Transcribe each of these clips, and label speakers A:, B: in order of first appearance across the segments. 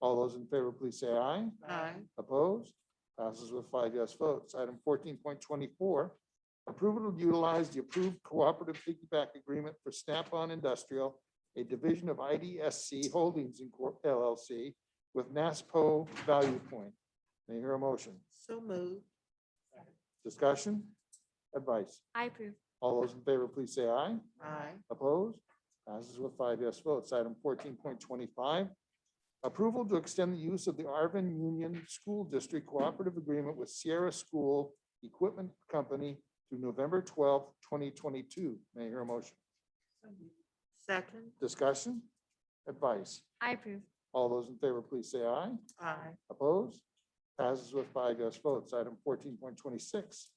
A: All those in favor, please say aye.
B: Aye.
A: Opposed? Passes with five yes votes. Item fourteen point twenty-four, approval to utilize the approved cooperative piggyback agreement for Snap-on Industrial, a division of IDSC Holdings Incor- LLC with NASPO Value Point. May I hear a motion?
B: So moved.
A: Discussion? Advice?
C: I approve.
A: All those in favor, please say aye.
B: Aye.
A: Opposed? Passes with five yes votes. Item fourteen point twenty-five. Approval to extend the use of the Arvin Union School District Cooperative Agreement with Sierra School Equipment Company through November twelfth, twenty twenty-two. May I hear a motion?
B: Second.
A: Discussion? Advice?
C: I approve.
A: All those in favor, please say aye.
B: Aye.
A: Opposed? Passes with five yes votes. Item fourteen point twenty-six.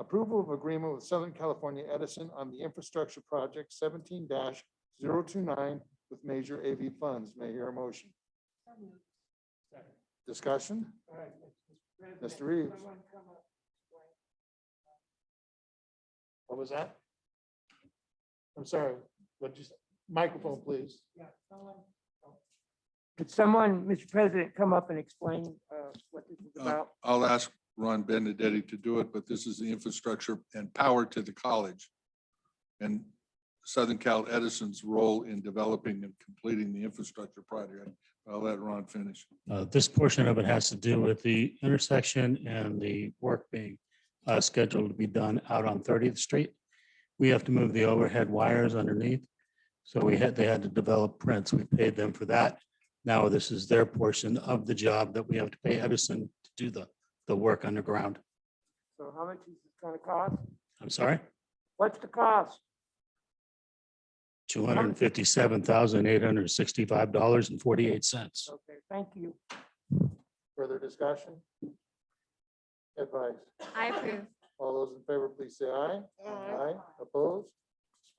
A: Approval of agreement with Southern California Edison on the infrastructure project seventeen 29 with major AV funds. May I hear a motion? Discussion? Mr. Reeves. What was that? I'm sorry, what just, microphone, please.
D: Could someone, Mr. President, come up and explain uh, what this is
E: Uh,
D: about?
E: I'll ask Ron Benedetti to do it, but this is the infrastructure and power to the college. And Southern Cal Edison's role in developing and completing the infrastructure project. I'll let Ron finish.
F: Uh, This portion of it has to do with the intersection and the work being uh, scheduled to be done out on 30th Street. We have to move the overhead wires underneath. So we had, they had to develop prints. We paid them for that. Now this is their portion of the job that we have to pay Edison to do the, the work underground.
D: So how much is this going to cost?
F: I'm sorry,
D: What's the cost?
F: $257,865.48.
D: Okay, thank you.
A: Further discussion? Advice?
C: I approve.
A: All those in favor, please say aye. Aye. Opposed?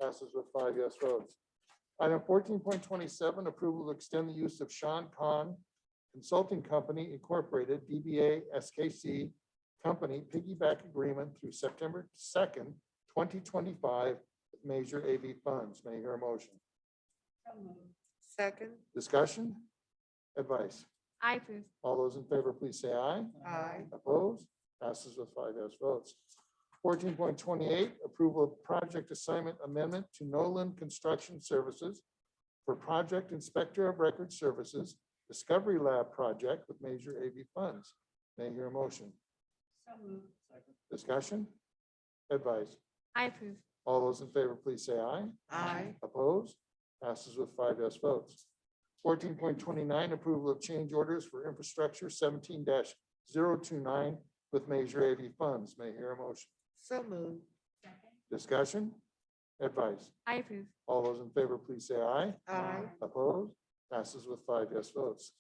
A: Passes with five yes votes. Item fourteen point twenty-seven, approval to extend the use of Sean Khan Consulting Company Incorporated, DBA SKC Company Piggyback Agreement through September second, twenty twenty-five, with major AV funds. May I hear a motion?
B: Second.
A: Discussion? Advice?
C: I approve.
A: All those in favor, please say aye.
B: Aye.
A: Opposed? Passes with five yes votes. Fourteen point twenty-eight, approval of project assignment amendment to Nolan Construction Services for Project Inspector of Record Services Discovery Lab Project with major AV funds. May I hear a motion? Discussion? Advice?
C: I approve.
A: All those in favor, please say aye.
B: Aye.
A: Opposed? Passes with five yes votes. Fourteen point twenty-nine, approval of change orders for infrastructure seventeen 29 with major AV funds. May I hear a motion?
B: So moved.
A: Discussion? Advice?
C: I approve.
A: All those in favor, please say aye.
B: Aye.
A: Opposed? Passes with five yes votes.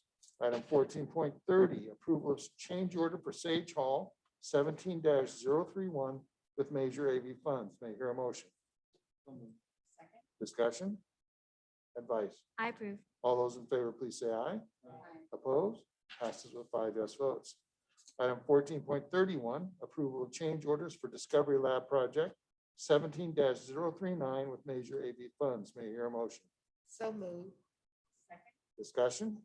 A: Item fourteen point thirty, approval of change order for Sage Hall seventeen 31 with major AV funds. May I hear a motion? Discussion? Advice?
C: I approve.
A: All those in favor, please say aye. Opposed? Passes with five yes votes. Item fourteen point thirty-one, approval of change orders for Discovery Lab Project seventeen 39 with major AV funds. May I hear a motion?
B: So moved.
A: Discussion?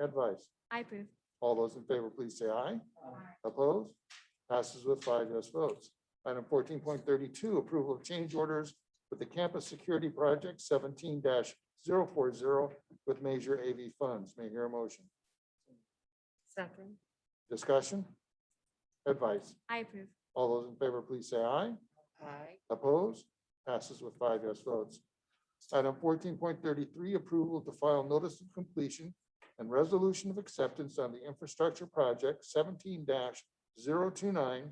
A: Advice?
C: I approve.
A: All those in favor, please say aye. Opposed? Passes with five yes votes. Item fourteen point thirty-two, approval of change orders with the Campus Security Project seventeen 40 with major AV funds. May I hear a motion?
B: Second.
A: Discussion? Advice?
C: I approve.
A: All those in favor, please say aye.
B: Aye.
A: Opposed? Passes with five yes votes. Item fourteen point thirty-three, approval to file notice of completion and resolution of acceptance on the infrastructure project seventeen 29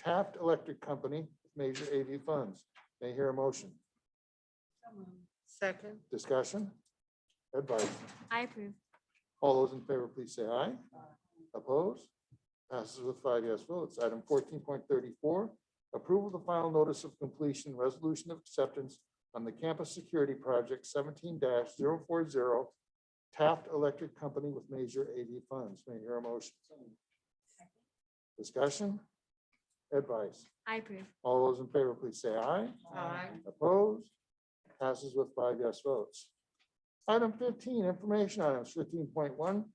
A: Taft Electric Company, major AV funds. May I hear a motion?
B: Second.
A: Discussion? Advice?
C: I approve.
A: All those in favor, please say aye. Opposed? Passes with five yes votes. Item fourteen point thirty-four, approval to file notice of completion, resolution of acceptance on the campus security project seventeen 40 Taft Electric Company with major AV funds. May I hear a motion? Discussion? Advice?
C: I approve.
A: All those in favor, please say aye.
B: Aye.
A: Opposed? Passes with five yes votes. Item fifteen, information items, fifteen point one,